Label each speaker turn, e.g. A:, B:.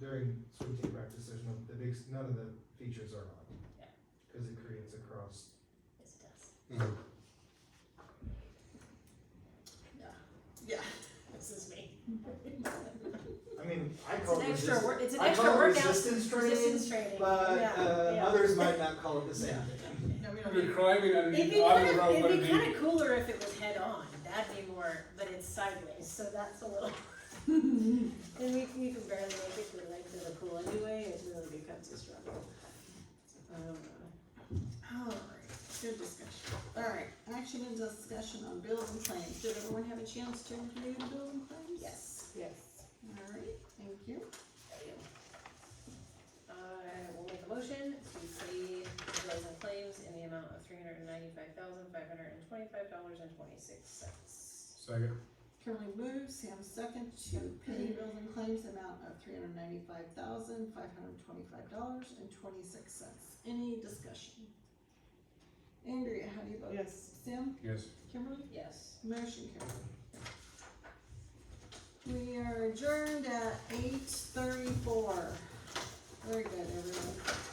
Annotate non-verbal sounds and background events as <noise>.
A: during swim team practice, there's no, the big, none of the features are on.
B: Yeah.
A: Cause it creates a cross.
B: Yes, it does.
A: Mhm.
B: Yeah, yeah, this is me.
A: I mean, I
B: It's
A: call
B: an
A: it
B: extra
A: resist,
B: work, it's an
A: I
B: extra
A: call it
B: workout.
A: resistance training,
B: Resistance training,
A: but, uh,
B: yeah,
A: others might not call it the same.
C: No, we don't
D: You're
C: need,
D: climbing
B: yeah. It'd be
D: underneath the auto
B: kind of,
D: road, what
B: it'd
D: it
B: be
D: be?
B: kind of cooler if it was head on, that'd be more, but it's sideways, so that's a little. <laughs> And we, you can barely make it to the length of the pool anyway, it really becomes a struggle. Um,
C: alright, Oh, good discussion. Alright, action and discussion on bills and claims. Did everyone have a chance to review the bills and claims?
B: yes.
C: Yes. Alright, thank you.
B: I will make a motion to pay the bills and claims in the amount of three hundred and ninety-five thousand, five hundred and twenty-five dollars and twenty-six cents.
D: Second,
C: Curly moves, Sam second, to pay bills and claims amount of three hundred ninety-five thousand, five hundred twenty-five dollars and twenty-six cents. Any discussion? Andrea, how do you vote? Yes. Sam,
D: yes.
C: Kimberly,
B: Yes.
C: motion carried. We are adjourned at eight thirty-four. Very good, everyone.
B: Um,